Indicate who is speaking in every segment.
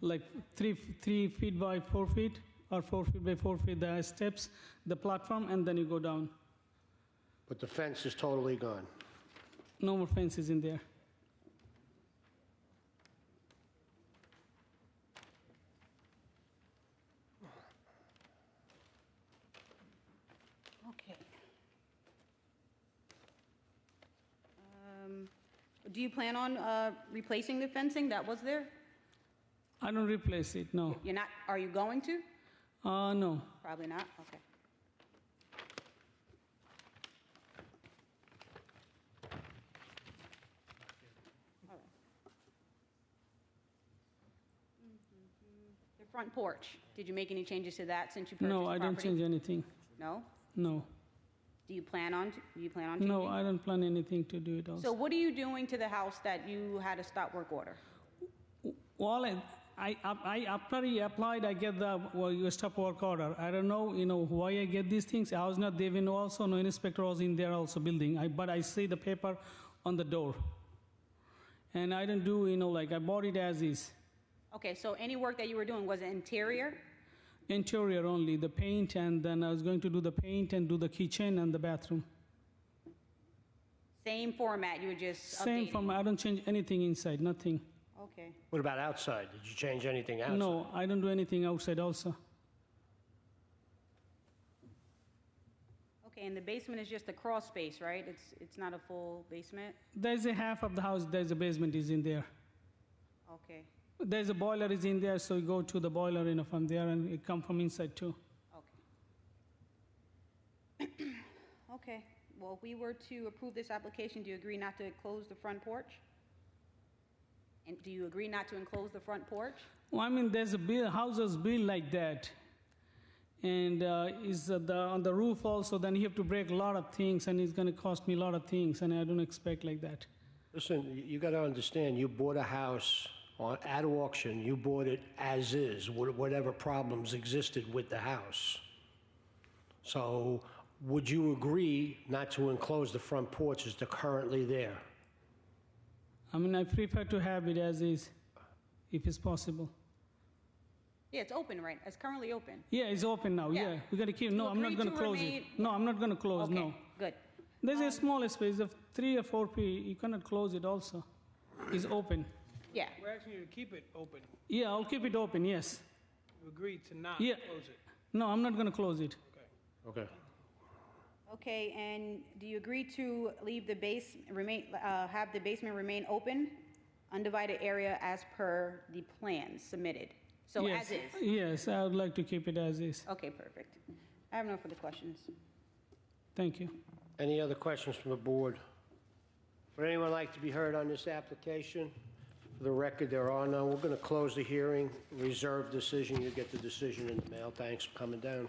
Speaker 1: like three three feet by four feet or four feet by four feet. The steps, the platform, and then you go down.
Speaker 2: But the fence is totally gone.
Speaker 1: No more fences in there.
Speaker 3: Okay. Um, Do you plan on uh, replacing the fencing that was there?
Speaker 1: I don't replace it. No.
Speaker 3: You're not, are you going to?
Speaker 1: Uh, no.
Speaker 3: Probably not, okay. All right. The front porch, did you make any changes to that since you purchased the
Speaker 1: No, I don't
Speaker 3: property?
Speaker 1: change anything.
Speaker 3: No?
Speaker 1: No.
Speaker 3: Do you plan on, do you plan on changing?
Speaker 1: No, I don't plan anything to do it also.
Speaker 3: So what are you doing to the house that you had a stop work order?
Speaker 1: Well, I, I, I after I applied, I get the well, you stop work order. I don't know, you know, why I get these things. I was not there when also, no inspector was in there also building. I, but I see the paper on the door. And I don't do, you know, like I bought it as is.
Speaker 3: Okay, so any work that you were doing was it interior?
Speaker 1: Interior only, the paint, and then I was going to do the paint and do the kitchen and the bathroom.
Speaker 3: Same format, you were just
Speaker 1: Same
Speaker 3: updating?
Speaker 1: from, I don't change anything inside, nothing.
Speaker 3: Okay.
Speaker 2: What about outside? Did you change anything outside?
Speaker 1: No, I don't do anything outside also.
Speaker 3: Okay, and the basement is just a crawl space, right? It's, it's not a full basement?
Speaker 1: There's a half of the house, there's a basement is in there.
Speaker 3: Okay,
Speaker 1: There's a boiler is in there, so you go to the boiler, you know, from there, and it come from inside too.
Speaker 3: okay. Okay, well, if we were to approve this application, do you agree not to close the front porch? And do you agree not to enclose the front porch?
Speaker 1: Well, I mean, there's a bill, houses built like that, and uh, is uh, the on the roof also. Then you have to break a lot of things, and it's going to cost me a lot of things, and I don't expect like that.
Speaker 2: Listen, you- you got to understand, you bought a house on- at auction, you bought it as is, wh- whatever problems existed with the house. So would you agree not to enclose the front porch as they're currently there?
Speaker 1: I mean, I prefer to have it as is, if it's possible.
Speaker 3: Yeah, it's open, right? It's currently open.
Speaker 1: Yeah, it's open now.
Speaker 3: Yeah.
Speaker 1: Yeah, we got to keep.
Speaker 3: You
Speaker 1: No, I'm not
Speaker 3: agree
Speaker 1: going
Speaker 3: to
Speaker 1: to close
Speaker 3: remain-
Speaker 1: it. No, I'm not going to close.
Speaker 3: Okay,
Speaker 1: No,
Speaker 3: Good.
Speaker 1: there's a small space of three or four feet. You cannot close it. Also, it's open.
Speaker 3: Yeah,
Speaker 4: We're asking you to keep it open.
Speaker 1: Yeah, I'll keep it open. Yes.
Speaker 4: You agreed to not
Speaker 1: Yeah.
Speaker 4: close it.
Speaker 1: No, I'm not going to close it.
Speaker 4: Okay.
Speaker 2: Okay.
Speaker 3: Okay, and do you agree to leave the base, remain, uh, have the basement remain open, undivided area as per the plan submitted? So as
Speaker 1: yes.
Speaker 3: is?
Speaker 1: Yes, I would like to keep it as is.
Speaker 3: Okay, perfect. I have no further questions.
Speaker 1: Thank you.
Speaker 2: Any other questions from the board? Would anyone like to be heard on this application? For the record, there are none. We're going to close the hearing, reserve decision. You get the decision in the mail. Thanks for coming down.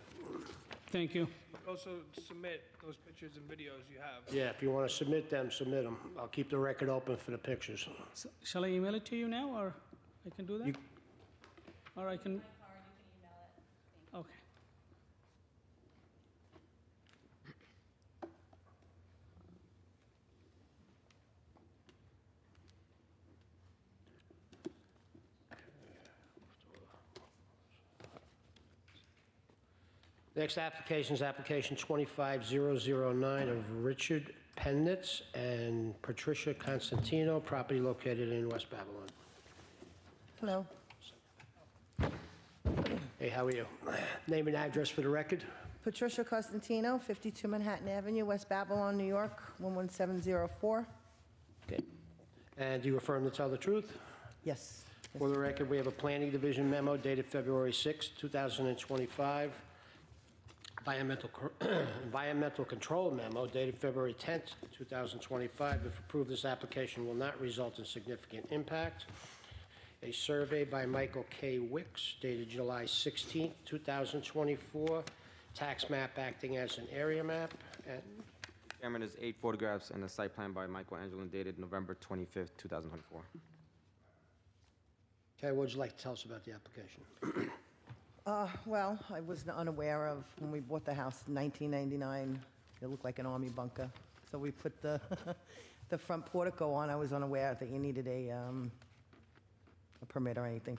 Speaker 1: Thank you.
Speaker 4: Also submit those pictures and videos you have.
Speaker 2: Yeah, if you want to submit them, submit them. I'll keep the record open for the pictures.
Speaker 1: S shall I email it to you now, or I can do that?
Speaker 2: You-
Speaker 1: or I can. Okay.
Speaker 2: Next application is application 25009 of Richard Pennitz and Patricia Constantino, property located in West Babylon.
Speaker 5: Hello,
Speaker 2: Hey, how are you? Name and address for the record?
Speaker 5: Patricia Costantino, 52 Manhattan Avenue, West Babylon, New York, 11704.
Speaker 2: And do you affirm to tell the truth?
Speaker 5: Yes.
Speaker 2: For the record, we have a Planning Division memo dated February 6, 2025, environmental cor- environmental control memo dated February 10, 2025. If approved, this application will not result in significant impact. A survey by Michael K. Wicks dated July 16, 2024, tax map acting as an area map, and
Speaker 6: Chairman, there's eight photographs and a site plan by Michael Angelin dated November 25th, 2024.
Speaker 2: Terry, what would you like to tell us about the application?
Speaker 5: Uh, Well, I was unaware of, when we bought the house in 1999, it looked like an army bunker. So we put the, the front portico on. I was unaware that you needed a, um, a permit or anything